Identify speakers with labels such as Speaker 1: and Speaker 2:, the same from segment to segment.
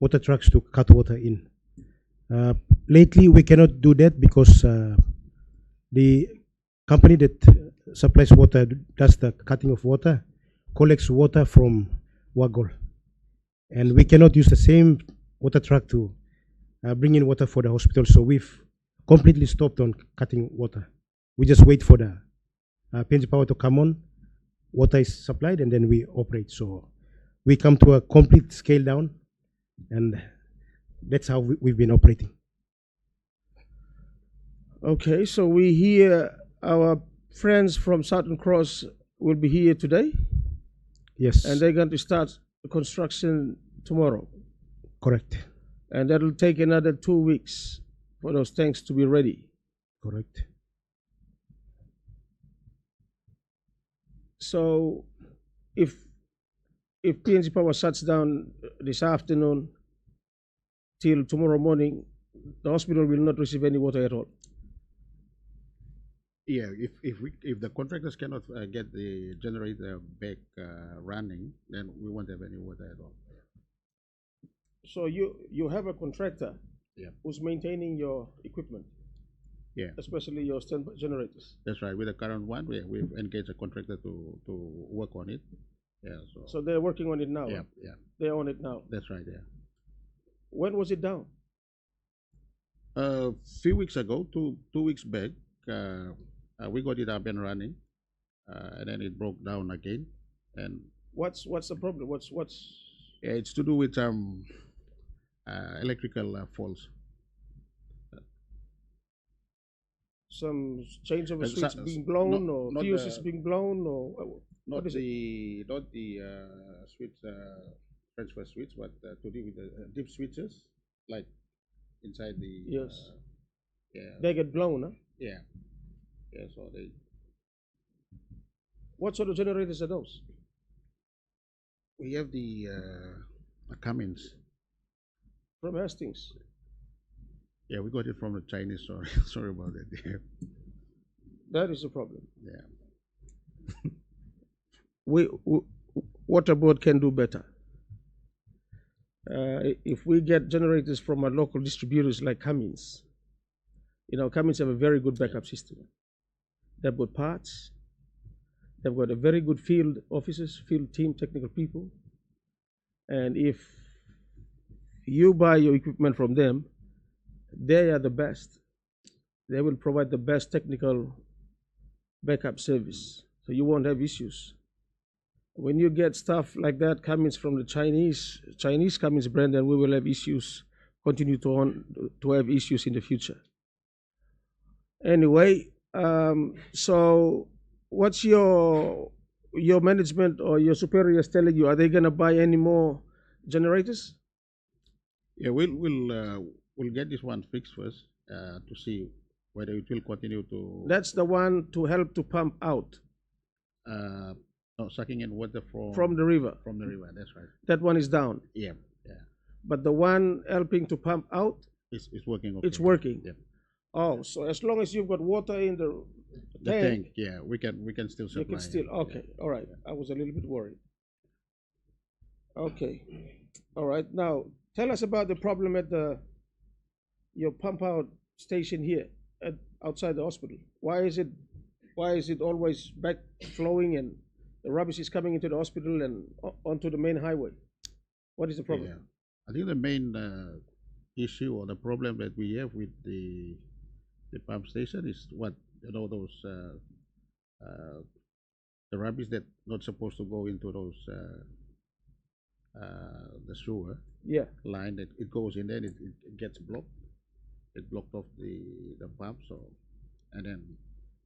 Speaker 1: water trucks to cut water in. Uh, Lately, we cannot do that because uh, the company that supplies water, does the cutting of water, collects water from Wagol. And we cannot use the same water truck to uh, bring in water for the hospital, so we've completely stopped on cutting water. We just wait for the uh, PNG Power to come on, water is supplied, and then we operate. So we come to a complete scale down, and that's how we- we've been operating.
Speaker 2: Okay, so we hear our friends from Southern Cross will be here today
Speaker 1: Yes,
Speaker 2: and they're going to start construction tomorrow.
Speaker 1: correct,
Speaker 2: And that'll take another two weeks for those tanks to be ready.
Speaker 1: correct.
Speaker 2: So if if PNG Power shuts down this afternoon till tomorrow morning, the hospital will not receive any water at all.
Speaker 3: Yeah, if, if we, if the contractors cannot uh, get the generator back uh, running, then we won't have any water at all.
Speaker 2: So you you have a contractor
Speaker 3: Yeah.
Speaker 2: who's maintaining your equipment,
Speaker 3: Yeah,
Speaker 2: especially your standby generators.
Speaker 3: that's right. With the current one, we, we've engaged a contractor to, to work on it. Yeah, so,
Speaker 2: So they're working on it now.
Speaker 3: yeah, yeah,
Speaker 2: They're on it now.
Speaker 3: that's right, yeah.
Speaker 2: When was it down?
Speaker 3: A Uh, few weeks ago, two, two weeks back, uh, uh, we got it up and running, uh, and then it broke down again. And
Speaker 2: What's what's the problem? What's what's
Speaker 3: yeah, it's to do with, um, uh, electrical uh, faults.
Speaker 2: some change of a
Speaker 3: Uh,
Speaker 2: switch
Speaker 3: so-
Speaker 2: being
Speaker 3: so-
Speaker 2: blown
Speaker 3: not-
Speaker 2: or
Speaker 3: not
Speaker 2: fuse
Speaker 3: the-
Speaker 2: is being blown or uh, what-
Speaker 3: Not
Speaker 2: what is it?
Speaker 3: the, not the uh, switch, uh, transfer switch, but uh, to deal with the uh, deep switches, like inside the.
Speaker 2: Yes.
Speaker 3: uh, Yeah,
Speaker 2: They get blown, huh?
Speaker 3: yeah. Yeah, so they,
Speaker 2: What sort of generators are those?
Speaker 3: we have the uh, uh, Cummins.
Speaker 2: From Hastings.
Speaker 3: Yeah, we got it from the Chinese, sorry, sorry about that. Yeah,
Speaker 2: That is the problem.
Speaker 3: Yeah.
Speaker 2: We, we water board can do better. Uh, i- if we get generators from our local distributors like Cummins, you know, Cummins have a very good backup system. They've got parts. They've got a very good field officers, field team, technical people. And if you buy your equipment from them, they are the best. They will provide the best technical backup service, so you won't have issues. When you get stuff like that coming from the Chinese Chinese Cummins brand, then we will have issues. Continue to on to have issues in the future. Anyway, um, so what's your your management or your superiors telling you? Are they gonna buy any more generators?
Speaker 3: Yeah, we'll, we'll, uh, we'll get this one fixed first, uh, to see whether it will continue to.
Speaker 2: That's the one to help to pump out
Speaker 3: Uh, no, sucking in water from.
Speaker 2: from the river.
Speaker 3: From the river, that's right.
Speaker 2: That one is down,
Speaker 3: Yeah, yeah,
Speaker 2: but the one helping to pump out
Speaker 3: it's, it's working.
Speaker 2: It's
Speaker 3: okay.
Speaker 2: working.
Speaker 3: Yeah.
Speaker 2: Oh, so as long as you've got water in the
Speaker 3: The
Speaker 2: tank,
Speaker 3: tank, yeah, we can, we can still supply.
Speaker 2: you can still,
Speaker 3: yeah.
Speaker 2: okay, all right, I was a little bit worried. Okay, all right, now, tell us about the problem at the, your pump out station here, at, outside the hospital. Why is it, why is it always back flowing and the rubbish is coming into the hospital and o- onto the main highway? What is the
Speaker 3: Yeah.
Speaker 2: problem?
Speaker 3: I think the main uh, issue or the problem that we have with the the pump station is what you know those uh, uh, the rubbish that not supposed to go into those uh, uh, the sewer
Speaker 2: Yeah,
Speaker 3: line that it goes in there and it, it, it gets blocked. It blocked off the the pump so and then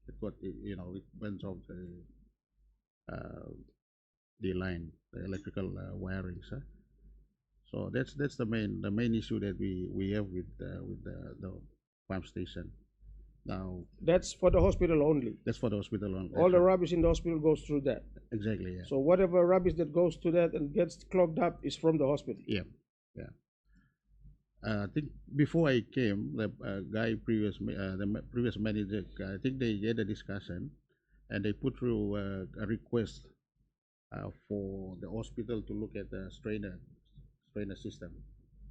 Speaker 3: it got it, you know it burns off the uh, the line the electrical uh, wiring sir. So that's that's the main the main issue that we we have with uh, with the, the pump station. Now
Speaker 2: that's for the hospital only.
Speaker 3: that's for the hospital on
Speaker 2: All the rubbish in the hospital goes through that.
Speaker 3: exactly yeah.
Speaker 2: So whatever rubbish that goes to that and gets clogged up is from the hospital.
Speaker 3: Yeah, yeah. Uh, I think before I came, the uh, guy previous, ma- uh, the ma- previous manager, I think they had a discussion, and they put through uh, a request uh, for the hospital to look at the strainer, strainer system.